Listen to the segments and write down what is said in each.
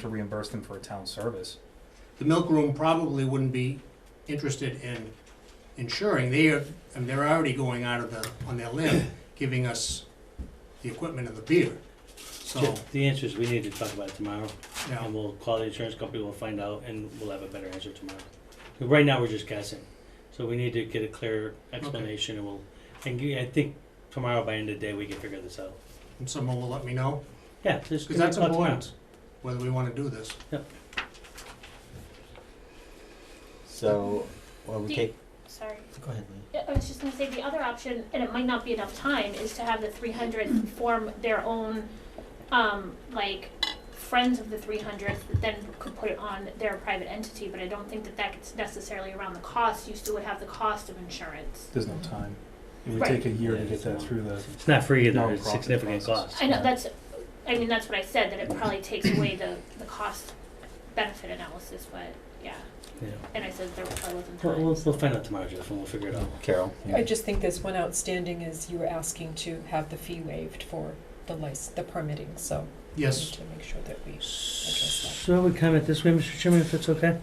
to reimburse them for a town service. The milk room probably wouldn't be interested in insuring, they are, and they're already going out of the, on their limb, giving us the equipment and the beer. So, The- The answer is we need to talk about it tomorrow, you know, and we'll call the insurance company, we'll find out, and we'll have a better answer tomorrow. 'Cause Right now, we're just guessing, so we need to get a clear explanation, and we'll, and you- I think tomorrow, by end of the day, we can figure this out. and someone will let me know, Yeah, just. because that's give me a call tomorrow. important, whether we wanna do this. So, well, we Do- take, Sorry. go ahead, Lee. Yeah, I was just gonna say, the other option, and it might not be enough time, is to have the three hundred form their own, um, like, friends of the three hundredth, that then could put it on their private entity, but I don't think that that gets necessarily around the cost, you still would have the cost of insurance. There's no time. It would Right. take a year to Yeah, get that through the, It's not free either, it's Nonprofit significant process. cost. I know, that's, I mean, that's what I said, that it probably takes away the, the cost benefit analysis, but, yeah, Yeah. and I said there probably wasn't We'll, time. we'll, we'll find out tomorrow, Jeff, and we'll figure it out. Carol. yeah. I just think there's one outstanding is you were asking to have the fee waived for the lic- the permitting, so we need Yes, to make sure that we address So I would comment this way, Mr. Chairman, if it's okay?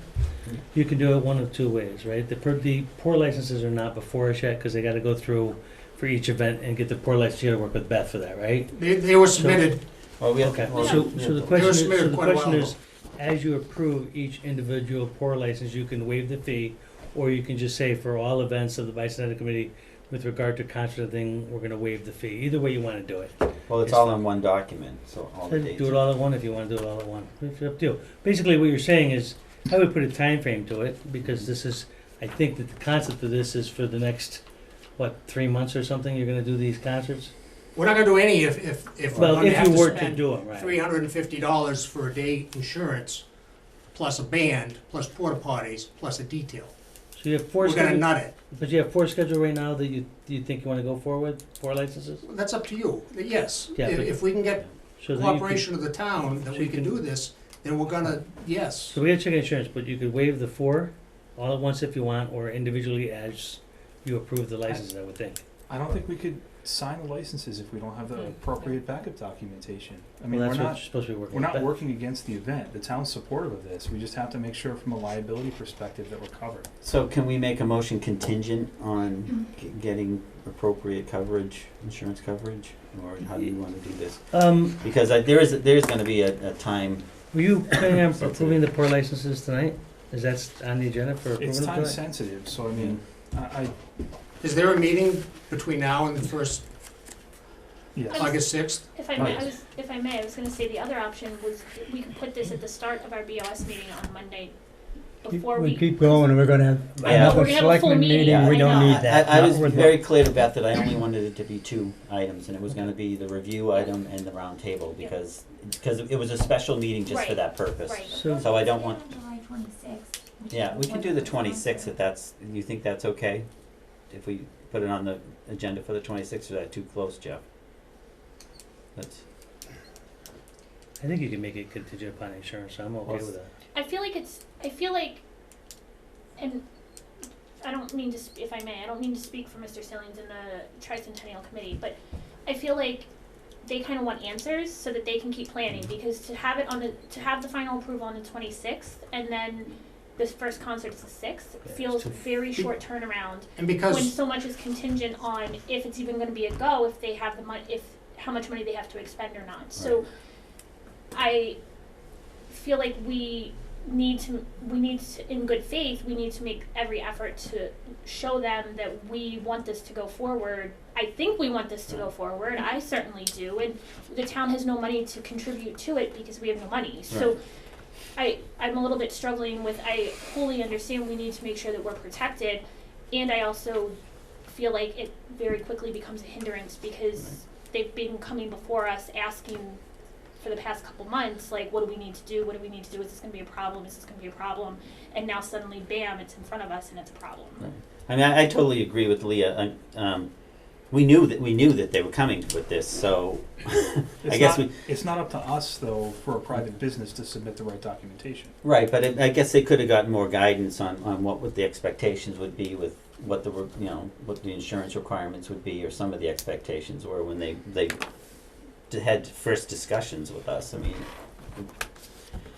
You can do it one of two ways, right? The, per- the pour licenses are not before us yet, because they gotta go through for each event and get the pour license, you gotta work with Beth for that, right? they, they were submitted, Well, we have, Okay, well, so, we so the have- they question were is, so submitted the quite a while question ago. is, as you approve each individual pour license, you can waive the fee, or you can just say for all events of the bicentennial committee, with regard to concert and thing, we're gonna waive the fee, either way you wanna do it. Well, it's it's all fine. in one document, so all the dates. Do it all at one if you want to do it all at one. It's up to you. Basically, what you're saying is, I would put a time frame to it because this is, I think that the concept of this is for the next, what, three months or something, you're gonna do these concerts? we're not gonna do any if, if, if we're Well, gonna if have you were to to spend do it, right. three hundred and fifty dollars for a day insurance, plus a band, plus porta potties, plus a detail. So you have four We're gonna scheduled, nut it. but you have four scheduled right now that you, you think you wanna go forward, four licenses? That's up to you, yes. Yeah, If, but- if we can get So that you could, cooperation of the town that so we you can can- do this, then we're gonna, yes. so we have check insurance, but you could waive the four all at once if you want, or individually as you approve the licenses, I would think. I don't think we could sign the licenses if we don't have the Hmm. appropriate backup documentation. I mean, Well, we're that's what you're not, supposed to be working we're not with. Beth. working against the event. The town's supportive of this. We just have to make sure from a liability perspective that we're covered. So can we make a motion contingent on g- getting appropriate coverage, insurance coverage? Or how do you wanna do this? Um, Because I, there is, there's gonna be a, a time, Were you planning on Sensitive. approving the pour licenses tonight? Is that on the agenda for approval It's time tonight? sensitive, so I mean, I, I, Is there a meeting between now and the first, yes. I'm- August sixth? If I Oh, may, yes. I was, if I may, I was gonna say the other option was, we could put this at the start of our BOS meeting on Monday, before we. We keep going, and we're gonna have Yeah. another We're gonna have a full selectmen meeting, meeting, we I don't know. need that. I, I Not was with- very clear to Beth that I only wanted it to be two items, and it was gonna be the review item and the roundtable, Yeah. because, because it was a special meeting just for Right. that purpose. Right. So- So I don't want, July twenty-sixth. yeah, we can do the twenty-sixth if that's, you think that's okay? If we put it on the agenda for the twenty-sixth, is that too close, Jeff? That's, I think you can make it contingent upon insurance, so I'm okay with that. I feel like it's, I feel like, and I don't mean to, sp- if I may, I don't mean to speak for Mr. Sillings and the tricentennial committee, but I feel like they kind of want answers so that they can keep planning, because to have it on the, to have the final approval on the twenty-sixth, and then this first concert's the sixth, it's feels too- very short turnaround. And when because, so much is contingent on if it's even going to be a go, if they have the money, if how much money they have to expend or not. So, I feel like we need to, we need to, in good faith, we need to make every effort to show them that we want this to go forward. I think we want this to go forward. I certainly do, and the town has no money to contribute to it because we have no money. So. I, I'm a little bit struggling with, I wholly understand we need to make sure that we're protected, and I also feel like it very quickly becomes a hindrance because they've been coming before us asking for the past couple months, like, what do we need to do? What do we need to do? Is this gonna be a problem? Is this gonna be a problem? And now suddenly, bam, it's in front of us and it's a problem. Right. I mean, I, I totally agree with Leah. I, um, we knew that we knew that they were coming with this, so It's I guess not- we It's not up to us, though, for a private business to submit the right documentation. right. But it, I guess they could have gotten more guidance on, on what would the expectations would be with what the re- you know what the insurance requirements would be, or some of the expectations were when they they d- had first discussions with us. I mean,